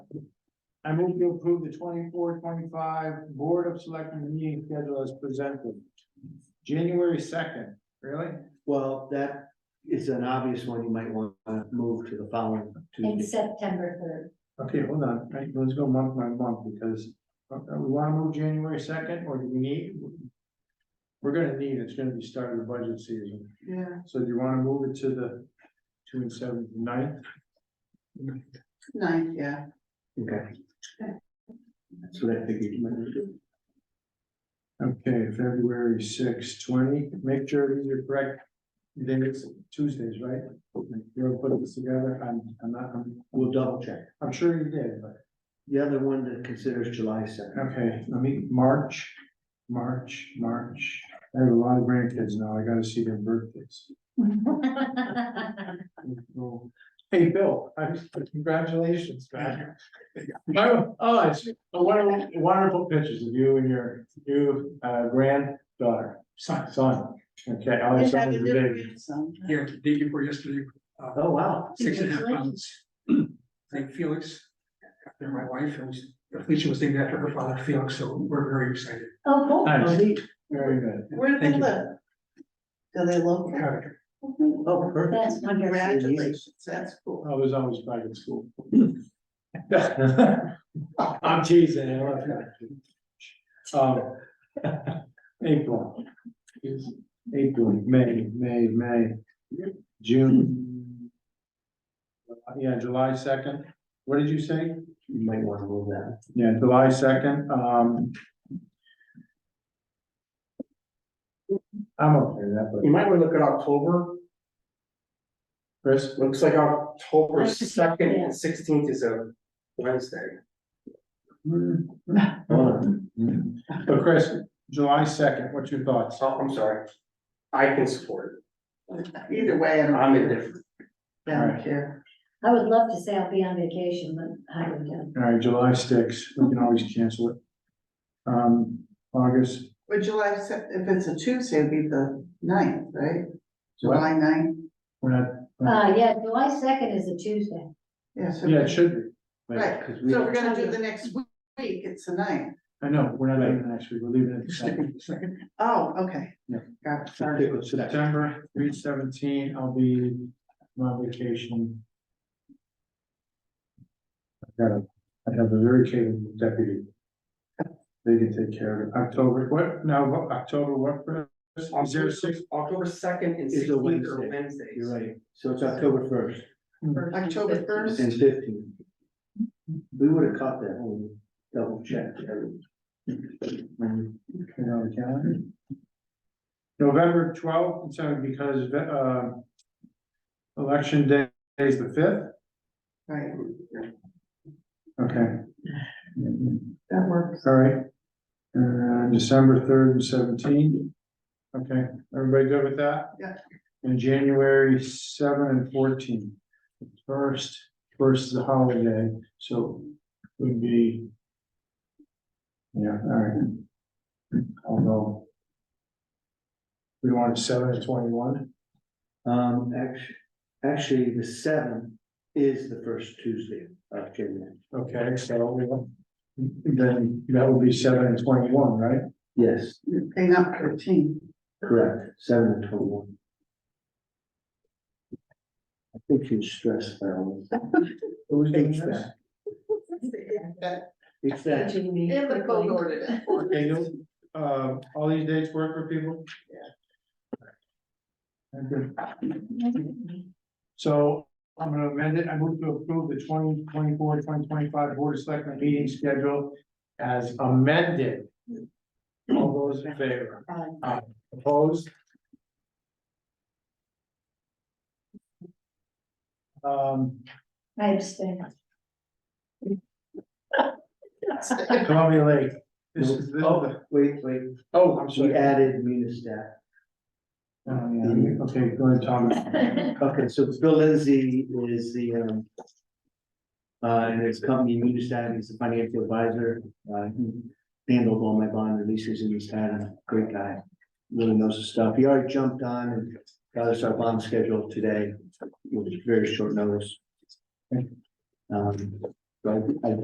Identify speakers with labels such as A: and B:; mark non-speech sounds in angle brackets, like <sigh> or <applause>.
A: I move to approve the 24-25 Board of Selectmen meeting schedule as presented. January second, really?
B: Well, that is an obvious one. You might want to move to the following
C: and
B: Tuesday.
C: September third.
A: Okay, hold on, right, let's go month by month, because uh, uh, we wanna move January second, or do we need? We're gonna need, it's gonna be starting the budget season,
D: Yeah.
A: so do you wanna move it to the two and seven ninth?
D: Nine,
C: <laughs>
D: yeah.
B: Okay. So that figured you might want to do.
A: Okay, February sixth, twenty, make sure these are correct. Then it's Tuesdays, right? You're gonna put this together, I'm, I'm not, I'm,
B: We'll double check.
A: I'm sure you did, but,
B: The other one to consider is July second.
A: okay, let me, March, March, March. I have a lot of grandkids now, I gotta see their birthdays. Hey, Bill, I- congratulations, man. Oh, oh, it's a wonderful, wonderful pictures of you and your new uh, granddaughter, son, son. Okay, all your
D: They have a
A: sons are
D: little
A: big.
D: grandson.
E: Yeah, the day before yesterday,
B: Oh, wow.
E: six and a half pounds. <clears throat> Thank Felix, after my wife, and Felicia was named after her father, Felix, so we're very excited.
C: Oh, cool.
B: Oh,
A: Nice,
B: neat.
A: very good.
D: Where do they
E: Thank you.
D: live? Do they local?
E: Character.
B: Oh, perfect.
C: That's wonderful.
D: Congratulations, that's cool.
A: I was always back at school. <laughs> I'm teasing, I love that. Um, April. April, May, May, May, June. Uh, Yeah, July second, what did you say?
B: You might want to move that.
A: Yeah, July second, um. I'm okay with that, but
F: You might want to look at October,
A: Chris,
F: looks like October
C: That's the second,
F: second
C: yeah.
F: and sixteenth is a Wednesday.
B: Mm-hmm.
A: but Chris, July second, what's your thoughts?
F: So, I'm sorry, I can support
D: Either way, I
F: it,
D: don't.
F: I'm indifferent.
D: I don't care.
C: I would love to say I'll be on vacation, but I don't know.
A: All right, July sticks, we can always cancel it. Um, August,
D: But July, se- if it's a Tuesday, it'd be the ninth, right?
A: What?
D: July ninth,
A: we're not,
C: Uh, yeah, July second is a Tuesday.
D: yeah, so.
A: yeah, it should be,
D: Right,
B: Because we,
D: so we're gonna do the next week, it's the ninth.
A: I know, we're not leaving next week, we're leaving it the second.
E: Second, second,
D: Oh, okay.
A: Yeah.
D: Got it, <laughs> sorry.
B: Sorry.
A: September, three seventeen, I'll be on vacation. I got a, I have a very capable deputy. They can take care of it, October, what, now, what- October, what, Chris? is there a six,
F: October second and
B: Is a
F: sixteenth are
B: Wednesday.
F: Wednesdays.
B: you're right. So it's October first
D: October first,
B: and fifteenth. We would have caught that when we double checked. everything.
A: Put it on the calendar. November twelfth, and seven, because, uh, election day is the fifth,
D: right,
A: okay,
D: that works.
A: all right. And December third and seventeenth. okay, everybody good with that?
D: Yeah.
A: And January seven and fourteen. First, first is a holiday, so would be. Yeah, all right. Although. We want seven and twenty-one?
B: Um, actually, actually, the seventh is the first Tuesday of January.
A: Okay, so we'll- then that would be seven and twenty-one, right?
B: Yes,
D: Hang up thirteen.
B: correct, seven and twenty-one. I think you stressed that one.
A: Who's doing this?
B: HVAC.
D: That-
B: It's that,
D: And the code ordered it.
A: Okay, no, uh, all these dates work for people? Yeah. Okay, so I'm gonna amend it, I move to approve the 2024-2025 Board of Selectmen meeting schedule as amended. All those in favor?
C: Aye.
A: Opposed? Um,
C: I abstain. <laughs>
A: Columbia Lake, this is, this is
B: oh,
A: the-
B: wait, wait,
A: oh, I'm
B: we
A: sorry.
B: added Munistat.
A: Oh, yeah, okay, go ahead, Thomas.
B: Okay, so Bill Lindsay is the, um, uh, and his company, Munistat, he's the financial advisor. Uh, he handled all my bond releases in his time, great guy, really knows his stuff. He already jumped on and got us our bond schedule today, with very short notice. Um, but I- I